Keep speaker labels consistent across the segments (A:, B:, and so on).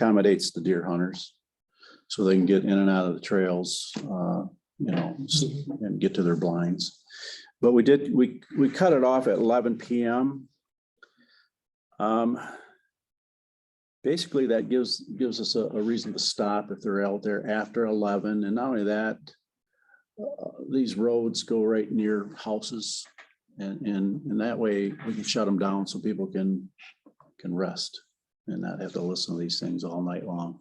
A: accommodates the deer hunters. So they can get in and out of the trails, uh, you know, s- and get to their blinds. But we did, we, we cut it off at eleven PM. Um, Basically, that gives, gives us a, a reason to stop if they're out there after eleven, and not only that, uh, these roads go right near houses, and, and, and that way we can shut them down so people can, can rest and not have to listen to these things all night long.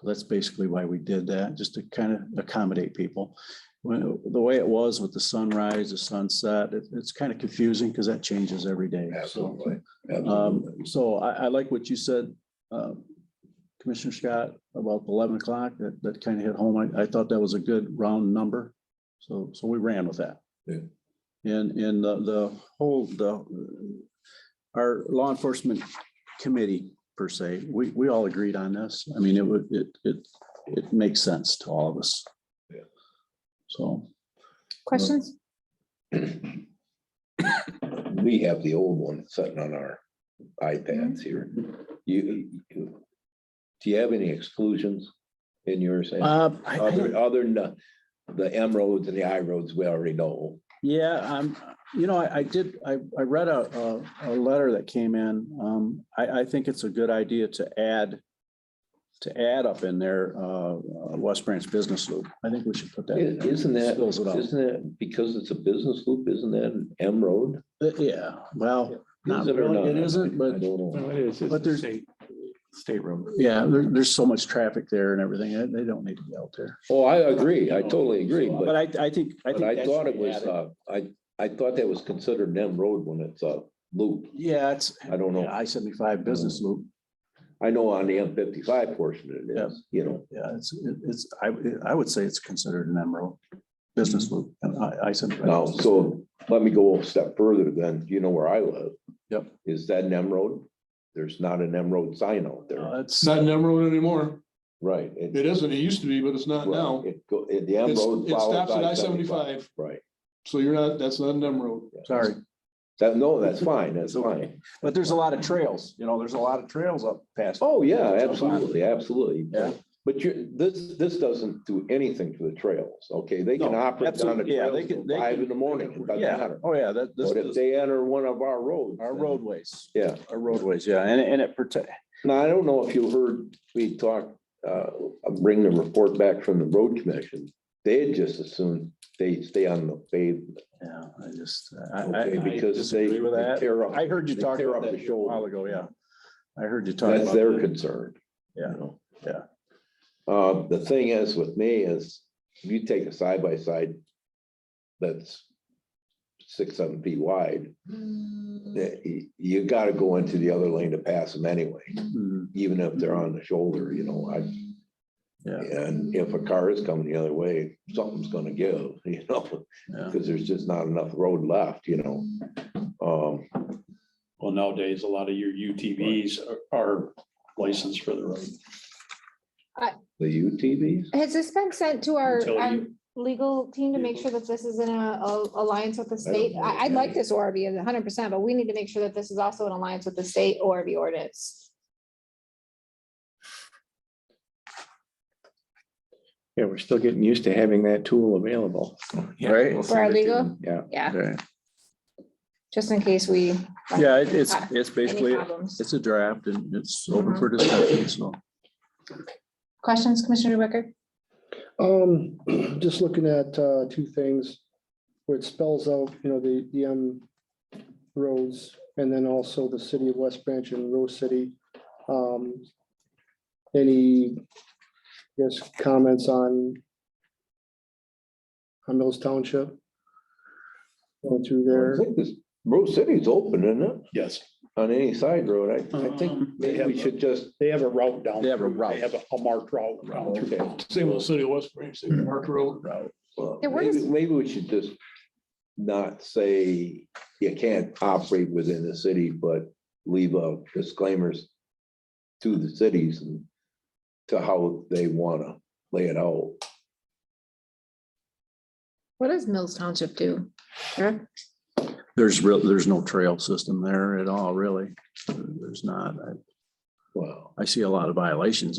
A: So that's basically why we did that, just to kind of accommodate people. Well, the way it was with the sunrise, the sunset, it- it's kind of confusing because that changes every day. So
B: Absolutely.
A: um, so I, I like what you said, uh, Commissioner Scott, about eleven o'clock, that, that kind of hit home. I, I thought that was a good round number. So, so we ran with that.
B: Yeah.
A: And, and the, the whole, the, our law enforcement committee per se, we, we all agreed on this. I mean, it would, it, it, it makes sense to all of us.
B: Yeah.
A: So,
C: Questions?
B: We have the old one sitting on our iPads here. You, you, do you have any exclusions in yours? Ann?
A: uh, I- I don't-
B: Other, other than the- the M roads and the I roads, we already know.
A: Yeah, um, you know, I, I did, I, I read a, a, a letter that came in. Um, I, I think it's a good idea to add, to add up in there, uh, uh, West Branch Business Loop. I think we should put that. in
B: I-
A: there.
B: Isn't that,
A: Spells it out.
B: isn't that, because it's a business loop, isn't that an M road?
A: Uh, Yeah, well, not
B: Is it or
A: really, it
B: not?
A: isn't,
B: I
A: but
B: don't
D: No,
B: know.
D: it is.
A: But
D: It's a
A: there's-
D: state, state road.
A: yeah, there, there's so much traffic there and everything. uh, They don't need to be out there.
B: Oh, I agree. I totally agree, but.
A: But I, I think, I think.
B: But I
A: that
B: thought
A: should
B: it
A: be
B: was,
A: added.
B: uh, I, I thought that was considered an M road when it's a loop.
A: Yeah, it's
B: I don't know.
A: I seventy-five Business Loop.
B: I know on the M fifty-five portion it
A: Yeah.
B: is, you know.
A: Yeah, it's, it- it's, I, I would say it's considered an emerald business loop. And I, I said.
B: Now, so let me go a step further then, you know where I live.
A: Yep.
B: Is that an M road? There's not an M road sign out there,
A: Uh,
E: It's
A: It's,
E: not an M road anymore.
B: right? it-
E: It isn't. It used to be, but it's not
B: right,
E: now.
B: It go, it- the M
E: It's-
B: road.
E: it
B: follows
E: stops at I-75.
B: Right,
E: So you're not, that's not an M road.
A: sorry,
B: that, no, that's fine, that's
A: Okay.
B: fine.
A: but there's a lot of trails, you know, there's a lot of trails up past.
B: Oh, yeah,
A: Yeah, it's on.
B: absolutely, absolutely.
A: Yeah.
B: But you, this, this doesn't do anything to the trails, okay? They can
A: No,
B: operate on the
A: absolutely, yeah, they
B: trails
A: can-
B: till
A: they
B: five
A: can-
B: in the morning, it doesn't
A: Yeah,
B: matter.
A: oh, yeah, that, this
B: But if
A: is
B: they enter one of our roads.
A: our
B: then-
A: roadways,
B: Yeah,
A: our roadways, yeah, and, and it protect,
B: now, I don't know if you heard, we talked, uh, I'll bring the report back from the road commission. They had just assumed they stay on the pavement,
A: yeah, I just, I, I,
B: okay,
A: I
B: because they.
A: disagree with
B: they
A: that.
B: tear up-
A: I heard you
B: they
A: talk
B: tear
A: about
B: up
A: that
B: the
A: a while
B: shoulder.
A: ago, yeah. I heard you talk
B: That's
A: about.
B: their
A: that.
B: concern. you
A: Yeah,
B: know?
A: yeah.
B: Uh, the thing is with me is, if you take a side by side that's six, seven feet wide, that y- you gotta go into the other lane to pass them anyway,
A: Mhm.
B: even if they're on the shoulder, you know, I.
A: Yeah.
B: And if a car is coming the other way, something's gonna give, you know,
A: Yeah.
B: because there's just not enough road left, you know? Um,
F: Well, nowadays, a lot of your UTVs are- are licensed for the road.
B: the UTVs,
C: Has this been sent to our
F: Utility.
C: um, legal team to make sure that this is in a a- alliance with the state? I, I'd like this ORV hundred percent, but we need to make sure that this is also in alliance with the state ORV ordinance.
D: Yeah, we're still getting used to having that tool available.
A: Right.
C: For our legal?
D: Yeah.
C: Yeah,
A: Right.
C: just in case we. run
A: Yeah, it- it's, it's
C: into
A: basically,
C: Any problems.
A: it's a draft and it's open for discussion, so.
C: Questions, Commissioner Wicker?
G: Um, just looking at, uh, two things where it spells out, you know, the, the, um, roads and then also the city of West Branch and Rose City. Um, any, I guess, comments on on Mills Township? Going through
B: I
G: there.
B: think this, Rose City's open, isn't it?
H: Yes,
B: on any side road, I, I think
F: Um,
B: maybe we should just,
H: they have a route down.
A: They have a
H: through.
A: route.
H: They have a- a marked route. down through.
B: okay.
E: Same with the city of West Branch, they marked road.
B: well,
C: Yeah, where
B: Maybe,
C: is-
B: maybe we should just not say you can't operate within the city, but leave a disclaimers to the cities and to how they wanna lay it out.
C: What does Mills Township do? Eric?
A: There's real, there's no trail system there at all, really. There's not. I-
B: Wow.
A: I see a lot of violations.